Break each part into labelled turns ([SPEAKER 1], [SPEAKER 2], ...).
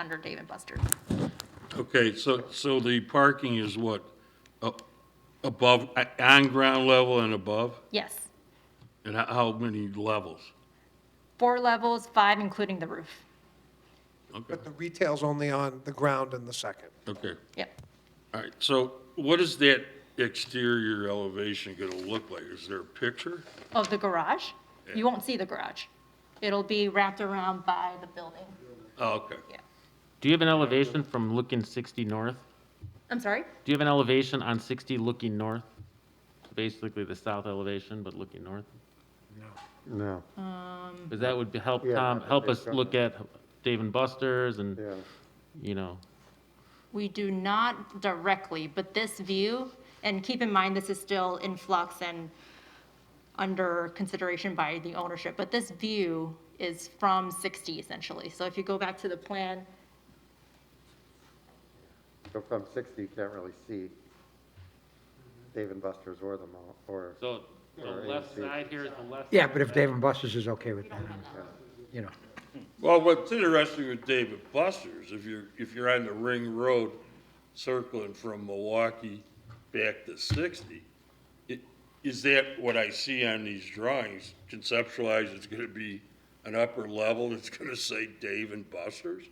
[SPEAKER 1] under David Buster.
[SPEAKER 2] Okay, so, so the parking is what, up- above, a- on ground level and above?
[SPEAKER 1] Yes,
[SPEAKER 2] And how- how many levels?
[SPEAKER 1] four levels, five including the roof.
[SPEAKER 2] Okay,
[SPEAKER 3] But the retail's only on the ground in the second.
[SPEAKER 2] okay,
[SPEAKER 1] Yep.
[SPEAKER 2] all right, so what is that exterior elevation gonna look like? Is there a picture?
[SPEAKER 1] Of the garage? You won't see the garage. It'll be wrapped around by the building.
[SPEAKER 2] Oh, okay,
[SPEAKER 4] Do you have an elevation from looking 60 north?
[SPEAKER 1] I'm sorry?
[SPEAKER 4] Do you have an elevation on 60 looking north? Basically the south elevation, but looking north?
[SPEAKER 5] No,
[SPEAKER 4] Because that would be- help
[SPEAKER 5] Yeah,
[SPEAKER 4] Tom,
[SPEAKER 5] that'd
[SPEAKER 4] help
[SPEAKER 5] be
[SPEAKER 4] us look at Dave and Buster's and,
[SPEAKER 5] yeah.
[SPEAKER 4] you know,
[SPEAKER 1] We do not directly, but this view, and keep in mind, this is still in flux and under consideration by the ownership, but this view is from 60 essentially. So if you go back to the plan,
[SPEAKER 5] So from 60, you can't really see Dave and Buster's or the mall, or,
[SPEAKER 4] so the
[SPEAKER 5] Or
[SPEAKER 4] left
[SPEAKER 5] 80.
[SPEAKER 4] side here is the left.
[SPEAKER 6] Yeah, but if Dave and Buster's is okay with that, you know.
[SPEAKER 2] Well, what's interesting with David Buster's, if you're, if you're on the ring road circling from Milwaukee back to sixty, i- is that what I see on these drawings? Conceptualize it's gonna be an upper level that's gonna say Dave and Buster's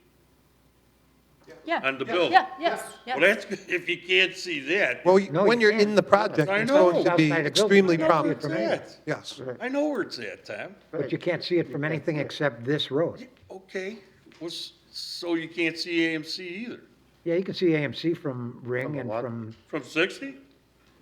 [SPEAKER 1] yeah,
[SPEAKER 2] on the building?
[SPEAKER 1] yeah, yes,
[SPEAKER 2] Well,
[SPEAKER 1] yes.
[SPEAKER 2] that's, if you can't see that,
[SPEAKER 3] Well,
[SPEAKER 6] No,
[SPEAKER 3] when
[SPEAKER 6] you
[SPEAKER 3] you're in
[SPEAKER 6] can't.
[SPEAKER 3] the project,
[SPEAKER 2] I
[SPEAKER 3] it's
[SPEAKER 2] know.
[SPEAKER 3] going to be
[SPEAKER 6] Outside the building.
[SPEAKER 3] extremely
[SPEAKER 6] No,
[SPEAKER 3] prominent.
[SPEAKER 6] it's
[SPEAKER 2] not.
[SPEAKER 3] Yes.
[SPEAKER 2] I know where it's at, Tom.
[SPEAKER 6] But you can't see it from anything except this road.
[SPEAKER 2] Okay, what's, so you can't see AMC either?
[SPEAKER 6] Yeah, you can see AMC from
[SPEAKER 5] From
[SPEAKER 6] Ring
[SPEAKER 5] the
[SPEAKER 6] and
[SPEAKER 5] lot.
[SPEAKER 6] from,
[SPEAKER 2] From sixty?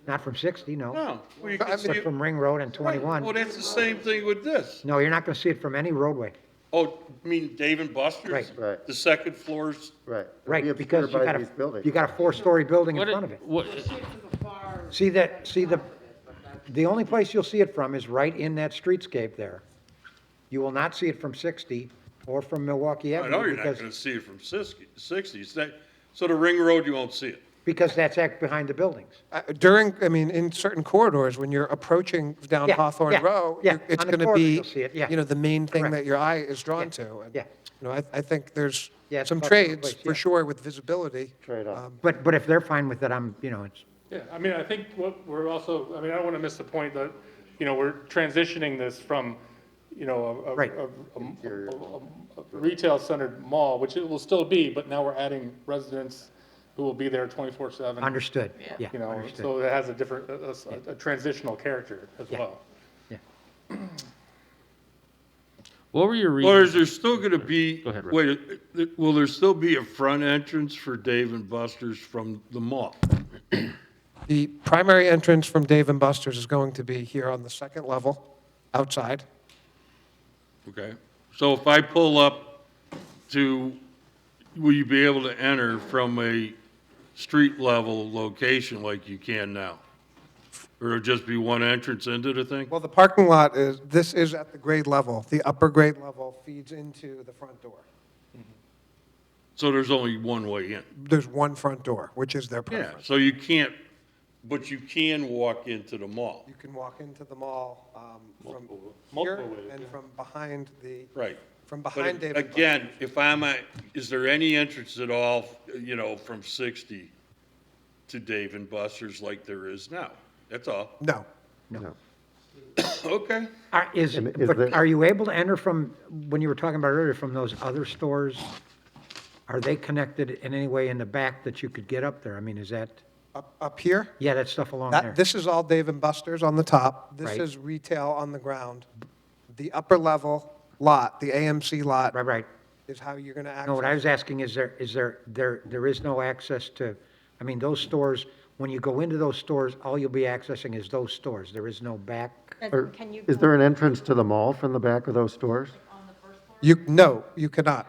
[SPEAKER 6] not from 60, no,
[SPEAKER 2] No. Well, you can
[SPEAKER 3] But
[SPEAKER 2] see
[SPEAKER 6] but
[SPEAKER 2] it-
[SPEAKER 6] from Ring Road and
[SPEAKER 2] Well,
[SPEAKER 6] 21.
[SPEAKER 2] that's the same thing with this.
[SPEAKER 6] No, you're not going to see it from any roadway.
[SPEAKER 2] Oh, you mean Dave and Buster's?
[SPEAKER 6] Right.
[SPEAKER 5] Right.
[SPEAKER 2] The second floor's,
[SPEAKER 5] right. it'd be
[SPEAKER 6] Right,
[SPEAKER 5] obscured
[SPEAKER 6] because you
[SPEAKER 5] by
[SPEAKER 6] got
[SPEAKER 5] these
[SPEAKER 6] a,
[SPEAKER 5] buildings.
[SPEAKER 6] you got a four-story building in
[SPEAKER 4] What it-
[SPEAKER 6] front of it.
[SPEAKER 4] What,
[SPEAKER 6] See that, see the, the only place you'll see it from is right in that streetscape there. You will not see it from 60 or from Milwaukee
[SPEAKER 2] I know
[SPEAKER 6] Avenue
[SPEAKER 2] you're not
[SPEAKER 6] because,
[SPEAKER 2] gonna see it from sixty, sixty, it's that, so the ring road, you won't see it.
[SPEAKER 6] because that's act behind the buildings.
[SPEAKER 3] Uh, During, I mean, in certain corridors, when you're approaching down
[SPEAKER 6] Yeah,
[SPEAKER 3] Hawthorne
[SPEAKER 6] yeah,
[SPEAKER 3] Row,
[SPEAKER 6] yeah.
[SPEAKER 3] you're- it's
[SPEAKER 6] On the
[SPEAKER 3] going to
[SPEAKER 6] corridor,
[SPEAKER 3] be,
[SPEAKER 6] you'll see it, yeah.
[SPEAKER 3] you know, the main thing
[SPEAKER 6] Correct.
[SPEAKER 3] that your eye is drawn
[SPEAKER 6] Yeah,
[SPEAKER 3] to. And,
[SPEAKER 6] yeah.
[SPEAKER 3] You know, I, I think there's
[SPEAKER 6] Yeah, it's
[SPEAKER 3] some
[SPEAKER 6] about the right
[SPEAKER 3] trades,
[SPEAKER 6] place,
[SPEAKER 3] for
[SPEAKER 6] yeah.
[SPEAKER 3] sure, with visibility.
[SPEAKER 5] Trade-off.
[SPEAKER 3] Um,
[SPEAKER 6] But, but if they're fine with it, I'm, you know, it's,
[SPEAKER 7] Yeah, I mean, I think what we're also, I mean, I don't want to miss the point that, you know, we're transitioning this from, you know, a-
[SPEAKER 6] Right.
[SPEAKER 7] a- a, a, a- a retail-centered mall, which it will still be, but now we're adding residents who will be there twenty-four seven.
[SPEAKER 6] understood, yeah,
[SPEAKER 7] You know,
[SPEAKER 6] understood.
[SPEAKER 7] so it has a different, a- a, a transitional character as
[SPEAKER 6] Yeah.
[SPEAKER 7] well.
[SPEAKER 4] what were your
[SPEAKER 2] Or is
[SPEAKER 4] reasons?
[SPEAKER 2] there still gonna be,
[SPEAKER 4] Go ahead, Rick.
[SPEAKER 2] wait, uh, will there still be a front entrance for Dave and Buster's from the mall?
[SPEAKER 3] The primary entrance from Dave and Buster's is going to be here on the second level, outside.
[SPEAKER 2] Okay, so if I pull up to, will you be able to enter from a street level location like you can now? Or it'll just be one entrance into the thing?
[SPEAKER 3] Well, the parking lot is, this is at the grade level. The upper grade level feeds into the front door.
[SPEAKER 2] So there's only one way in?
[SPEAKER 3] There's one front door, which is their
[SPEAKER 2] Yeah,
[SPEAKER 3] preference.
[SPEAKER 2] so you can't, but you can walk into the mall.
[SPEAKER 3] You can walk into the mall um, from here
[SPEAKER 7] multiple ways,
[SPEAKER 3] and from behind the,
[SPEAKER 2] Right.
[SPEAKER 3] from
[SPEAKER 2] But
[SPEAKER 3] behind David. Buster's.
[SPEAKER 2] Again, if I'm at, is there any entrance at all, you know, from 60 to Dave and Buster's like there is now? That's all.
[SPEAKER 3] No.
[SPEAKER 5] No.
[SPEAKER 2] Okay.
[SPEAKER 6] Are- Is,
[SPEAKER 5] And is
[SPEAKER 6] but
[SPEAKER 5] there-
[SPEAKER 6] are you able to enter from, when you were talking about earlier, from those other stores? Are they connected in any way in the back that you could get up there? I mean, is that,
[SPEAKER 3] Up, up here,
[SPEAKER 6] yeah, that stuff along there?
[SPEAKER 3] that, this is all Dave and Buster's on the top. This
[SPEAKER 6] Right.
[SPEAKER 3] is retail on the ground. The upper level lot, the AMC lot,
[SPEAKER 6] Right, right.
[SPEAKER 3] is how you're going to
[SPEAKER 6] No, what I
[SPEAKER 3] access.
[SPEAKER 6] was asking is there, is there, there, there is no access to, I mean, those stores, when you go into those stores, all you'll be accessing is those stores. There is no back.
[SPEAKER 5] Or-
[SPEAKER 1] Can you
[SPEAKER 5] Is there an entrance to the mall from the back of those stores?
[SPEAKER 3] You, no, you cannot.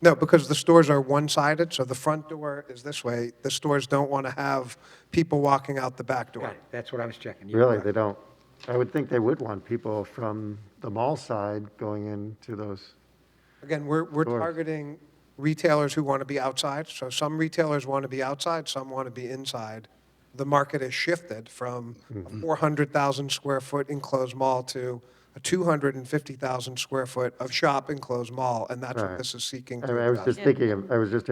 [SPEAKER 3] No, because the stores are one-sided, so the front door is this way. The stores don't want to have people walking out the back door.
[SPEAKER 6] Got it. That's what I was checking. You're
[SPEAKER 5] Really,
[SPEAKER 6] correct.
[SPEAKER 5] they don't. I would think they would want people from the mall side going into those.
[SPEAKER 3] Again, we're, we're
[SPEAKER 5] Sure.
[SPEAKER 3] targeting retailers who want to be outside. So some retailers want to be outside, some want to be inside.
[SPEAKER 5] Mm-hmm.
[SPEAKER 3] The market has shifted from a 400,000 square foot enclosed mall to a 250,000 square foot of shop enclosed mall, and that's what
[SPEAKER 5] Right.
[SPEAKER 3] this is seeking
[SPEAKER 5] I
[SPEAKER 3] to
[SPEAKER 5] mean, I was
[SPEAKER 3] address.
[SPEAKER 5] just thinking, of- I was just